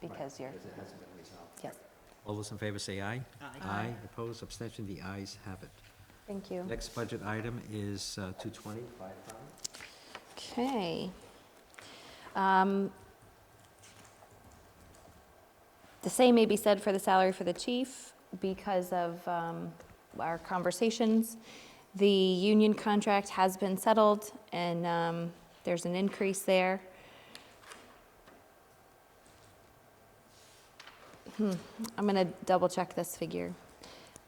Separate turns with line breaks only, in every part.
because you're,
Because it hasn't been resolved.
yes.
All those in favor say aye.
Aye.
Aye, opposed, abstention, the ayes have it.
Thank you.
Next budget item is uh, 220, firefighter.
Okay. Um, The same may be said for the salary for the chief because of um, our conversations. The union contract has been settled, and um, there's an increase there. Hmm, I'm going to double-check this figure.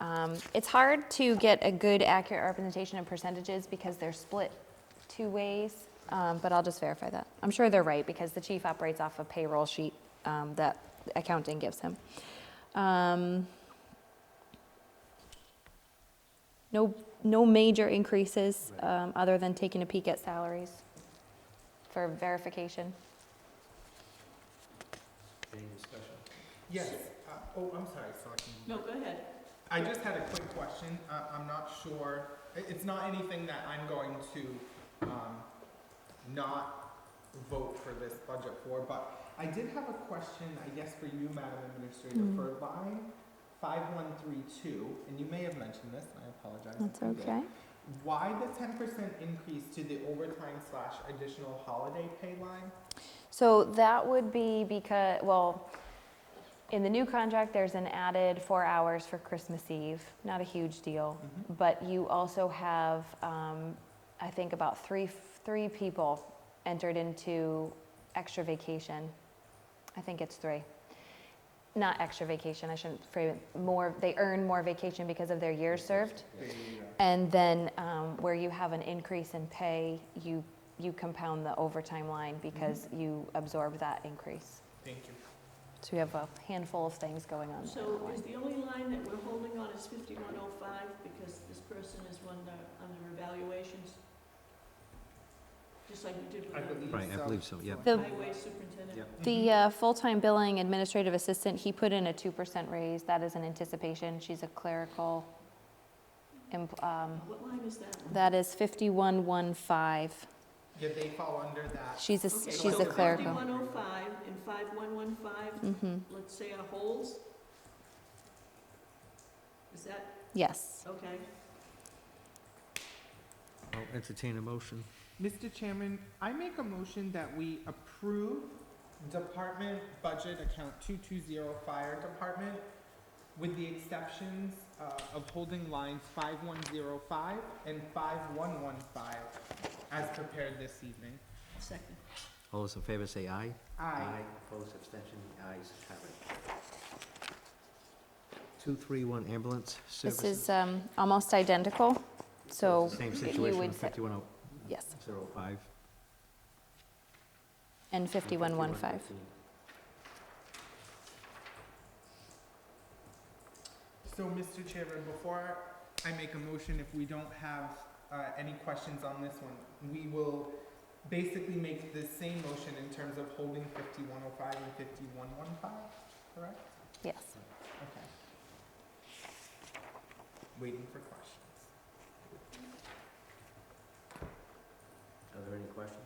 Um, It's hard to get a good, accurate representation of percentages because they're split two ways, um, but I'll just verify that. I'm sure they're right because the chief operates off a payroll sheet um, that accounting gives him. Um, No, no major increases um, other than taking a peek at salaries for verification.
Any discussion?
Yes, uh, oh, I'm sorry, Selectman.
No, go ahead.
I just had a quick question, uh, I'm not sure, i- it's not anything that I'm going to, um, not vote for this budget for, but I did have a question, I guess for you, Madam Administrator,
Mm.
for line five one three two, and you may have mentioned this, and I apologize. if you did. Why the ten percent increase to the overtime slash additional holiday pay line?
So that would be because, well, in the new contract, there's an added four hours for Christmas Eve, not a huge deal. But you also have, um, I think about three, three people entered into extra vacation. I think it's three. Not extra vacation, I shouldn't frame it, more, they earn more vacation because of their years served.
There you go.
And then um, where you have an increase in pay, you, you compound the overtime line because you absorb that increase.
Thank you.
So you have a handful of things going on.
So is the only line that we're holding on is fifty-one oh five, because this person is under, under evaluations? Just like we did
I
with
believe
the
Right, I believe so, yeah.
The-
the highway superintendent.
The uh, full-time billing administrative assistant, he put in a 2% raise. That is an anticipation. She's a clerical. empl- um,
What line is that? one?
That is 5115.
Yeah, they fall under that.
She's a,
Okay,
s-
so
she's a
the
clerical.
Fifty-one oh five and five-one-one-five,
Mhm.
let's say are holds? Is that,
Yes.
okay,
I'll entertain a motion.
Mr. Chairman, I make a motion that we approve Department Budget Account 220 Fire Department with the exceptions uh, of holding lines 5105 and 5115 as prepared this evening.
second.
All those in favor say aye.
Aye.
opposed, abstention, the ayes have it. 231 ambulance
This
services.
is um, almost identical, so.
Same
you
situation
would
with
say-
5105.
Yes, and
and
5115.
5115.
So, Mr. Chairman, before I make a motion, if we don't have uh, any questions on this one, we will basically make the same motion in terms of holding 5105 and 5115, correct?
Yes.
Okay. Waiting for questions.
Are there any questions?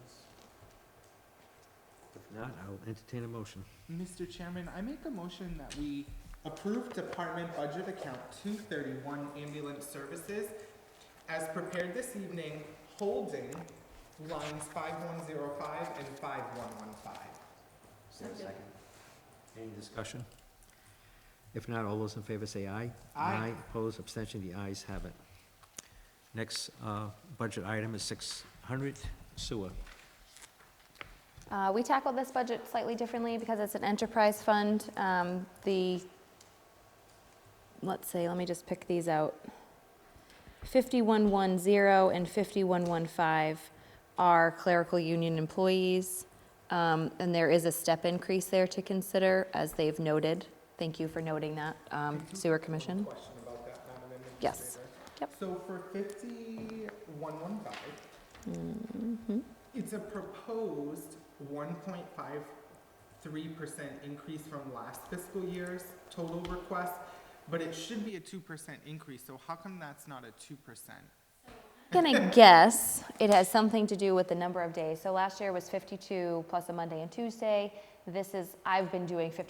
If not, I will entertain a motion.
Mr. Chairman, I make a motion that we approve Department Budget Account two thirty-one Ambulance Services as prepared this evening, holding lines five one zero five and five one one five.
Is there a
Second.
Any discussion? If not, all those in favor say aye.
Aye.
opposed, abstention, the ayes have it. Next uh, budget item is 600 sewer.
Uh, We tackled this budget slightly differently because it's an enterprise fund. Um, The, let's see, let me just pick these out. 5110 and 5115 are clerical union employees, Um, and there is a step increase there to consider, as they've noted. Thank you for noting that, um, Sewer Commission.
One question about that, Madam Administrator.
Yes. Yep.
So for fifty-one one five,
Mhm.
It's a proposed one point five three percent increase from last fiscal year's total request, but it should be a two percent increase, so how come that's not a two percent?
Gonna guess it has something to do with the number of days. So last year was 52 plus a Monday and Tuesday. This is, I've been doing 52